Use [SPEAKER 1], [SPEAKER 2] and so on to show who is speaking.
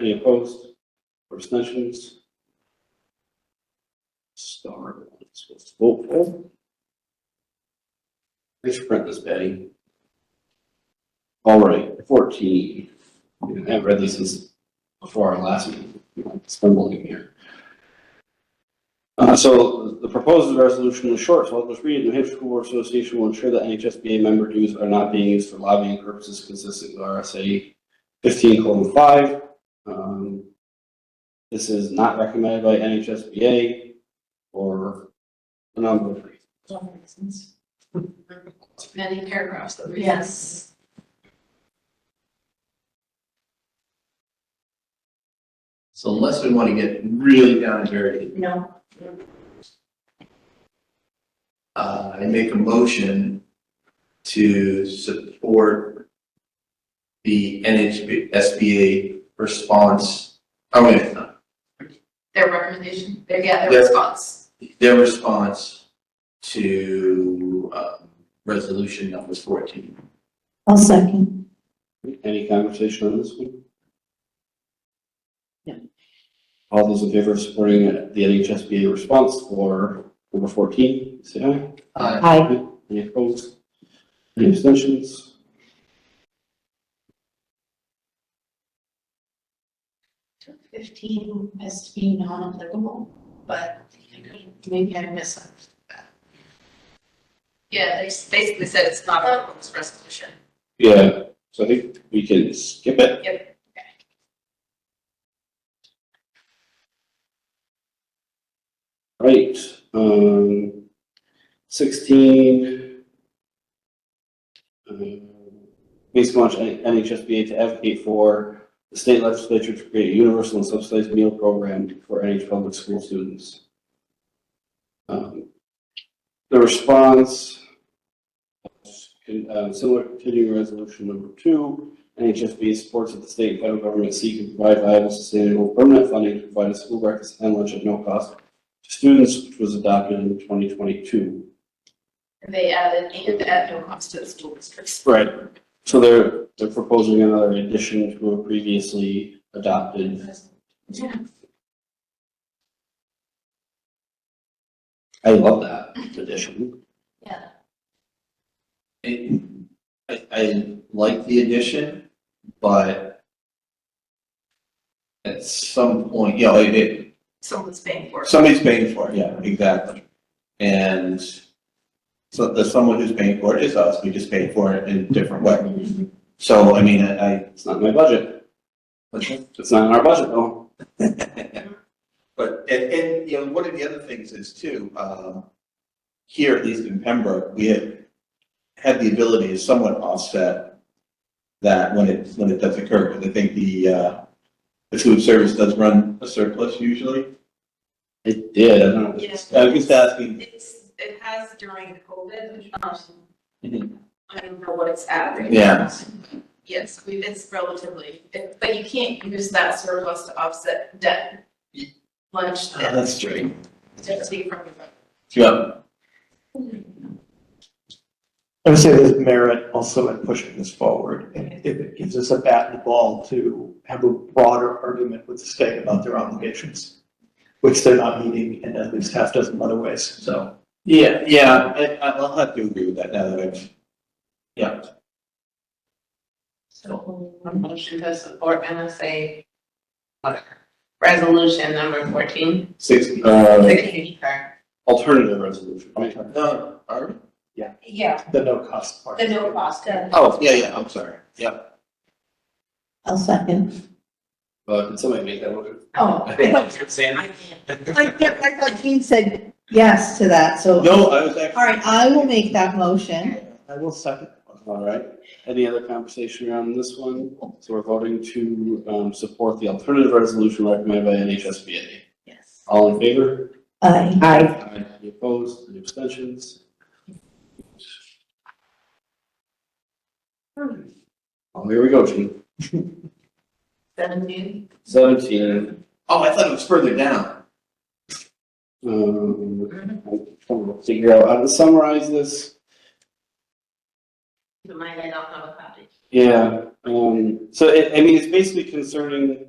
[SPEAKER 1] Any opposed or abstentions? Star, I'm supposed to vote for. Thanks for printing this, Betty. All right, fourteen. I have read this since before our last meeting. Stumbling here. Uh, so the proposed resolution is short, so I'll just read it. New Hampshire School Board Association will ensure that NHSBA member dues are not being used for lobbying purposes consistent with RSA fifteen colon five. Um, This is not recommended by NHSBA or a number of reasons.
[SPEAKER 2] That makes sense.
[SPEAKER 3] many paragraphs that we.
[SPEAKER 2] Yes.
[SPEAKER 4] So unless we want to get really down and dirty,
[SPEAKER 2] No.
[SPEAKER 4] uh, I make a motion to support the NHSBA response, oh, wait, no,
[SPEAKER 3] Their recommendation, their, yeah, their
[SPEAKER 4] Yes.
[SPEAKER 3] response.
[SPEAKER 4] their response to, um, resolution number fourteen.
[SPEAKER 2] I'll second.
[SPEAKER 1] Any conversation on this one?
[SPEAKER 2] No.
[SPEAKER 1] All those in favor of supporting the NHSBA response for number fourteen, say aye.
[SPEAKER 4] Uh,
[SPEAKER 2] Aye.
[SPEAKER 1] Any opposed? Any abstentions?
[SPEAKER 3] Fifteen has to be non-applicable, but I could- maybe I missed that. Yeah, they s- basically said it's not applicable this resolution.
[SPEAKER 1] Yeah, so I think we can skip it.
[SPEAKER 3] Yep.
[SPEAKER 1] Right, um, sixteen. um, Please launch NHSBA to advocate for the state legislature to create a universal and subsidized meal program for NH public school students. Um, The response, uh, similar to continuing resolution number two, NHSBA supports that the state and federal government seek and provide viable, sustainable, permanent funding to provide a school breakfast and lunch at no cost to students, which was adopted in twenty twenty-two.
[SPEAKER 3] And they added, and at no cost to the school districts.
[SPEAKER 1] Right. So they're, they're proposing another addition to a previously adopted.
[SPEAKER 3] Yeah.
[SPEAKER 1] I love that addition.
[SPEAKER 3] Yeah.
[SPEAKER 4] it- I, I like the addition, but at some point, you know, it, it,
[SPEAKER 3] Someone's paying for it.
[SPEAKER 4] Somebody's paying for it, yeah, exactly. And so the someone who's paying for it is us, we just pay for it in a different way. So, I mean, I, I-
[SPEAKER 1] It's not in my budget. It's not in our budget, though.
[SPEAKER 4] but, and, and, you know, one of the other things is too, um, here, at least in Pembroke, we had had the ability to somewhat offset that when it, when it does occur, because I think the, uh, the food service does run a surplus usually.
[SPEAKER 1] It did. I don't know.
[SPEAKER 3] Yeah.
[SPEAKER 4] I was just asking,
[SPEAKER 3] It's, it has during COVID, um,
[SPEAKER 4] Mhm.
[SPEAKER 3] I don't know what it's at. right
[SPEAKER 4] Yeah.
[SPEAKER 3] now. Yes, we, it's relatively, it- but you can't use that surplus to offset debt. Lunch
[SPEAKER 4] "Ah,
[SPEAKER 3] debt,
[SPEAKER 4] that's true.
[SPEAKER 3] just be from the.
[SPEAKER 4] Yeah,
[SPEAKER 5] I would say there's merit also in pushing this forward, and if it gives us a bat and a ball to have a broader argument with the state about their obligations, which they're not meeting in at least half dozen other ways, so.
[SPEAKER 4] Yeah, yeah, I, I- I'll have to agree with that now that I've, yeah.
[SPEAKER 6] A Motion to support NSA resolution number fourteen.
[SPEAKER 4] Sixty.
[SPEAKER 1] Uh,
[SPEAKER 6] Sixty, sorry.
[SPEAKER 1] alternative resolution. right?
[SPEAKER 4] No, are we?
[SPEAKER 2] Yeah,
[SPEAKER 5] The no cost part.
[SPEAKER 2] the no cost.
[SPEAKER 4] Oh, yeah, yeah, I'm sorry, yeah.
[SPEAKER 2] I'll second.
[SPEAKER 1] Uh, can somebody make that motion?
[SPEAKER 2] Oh.
[SPEAKER 3] I
[SPEAKER 2] I get- I thought Jean said yes to that, so, all
[SPEAKER 4] No, I was actually.
[SPEAKER 2] right, I will make that motion.
[SPEAKER 5] I will second.
[SPEAKER 1] All right. Any other conversation around this one? So we're voting to um, support the alternative resolution recommended by NHSBA.
[SPEAKER 3] Yes.
[SPEAKER 1] All in favor?
[SPEAKER 2] Aye.
[SPEAKER 1] Aye. Any opposed? Any abstentions? Oh, here we go, Gene.
[SPEAKER 3] Seventeen.
[SPEAKER 1] Seventeen.
[SPEAKER 4] Oh, I thought it was further down.
[SPEAKER 1] Um, I'm trying to figure out how to summarize this.
[SPEAKER 6] Mine, I don't have a copy.
[SPEAKER 1] Yeah, um, so it, I mean, it's basically concerning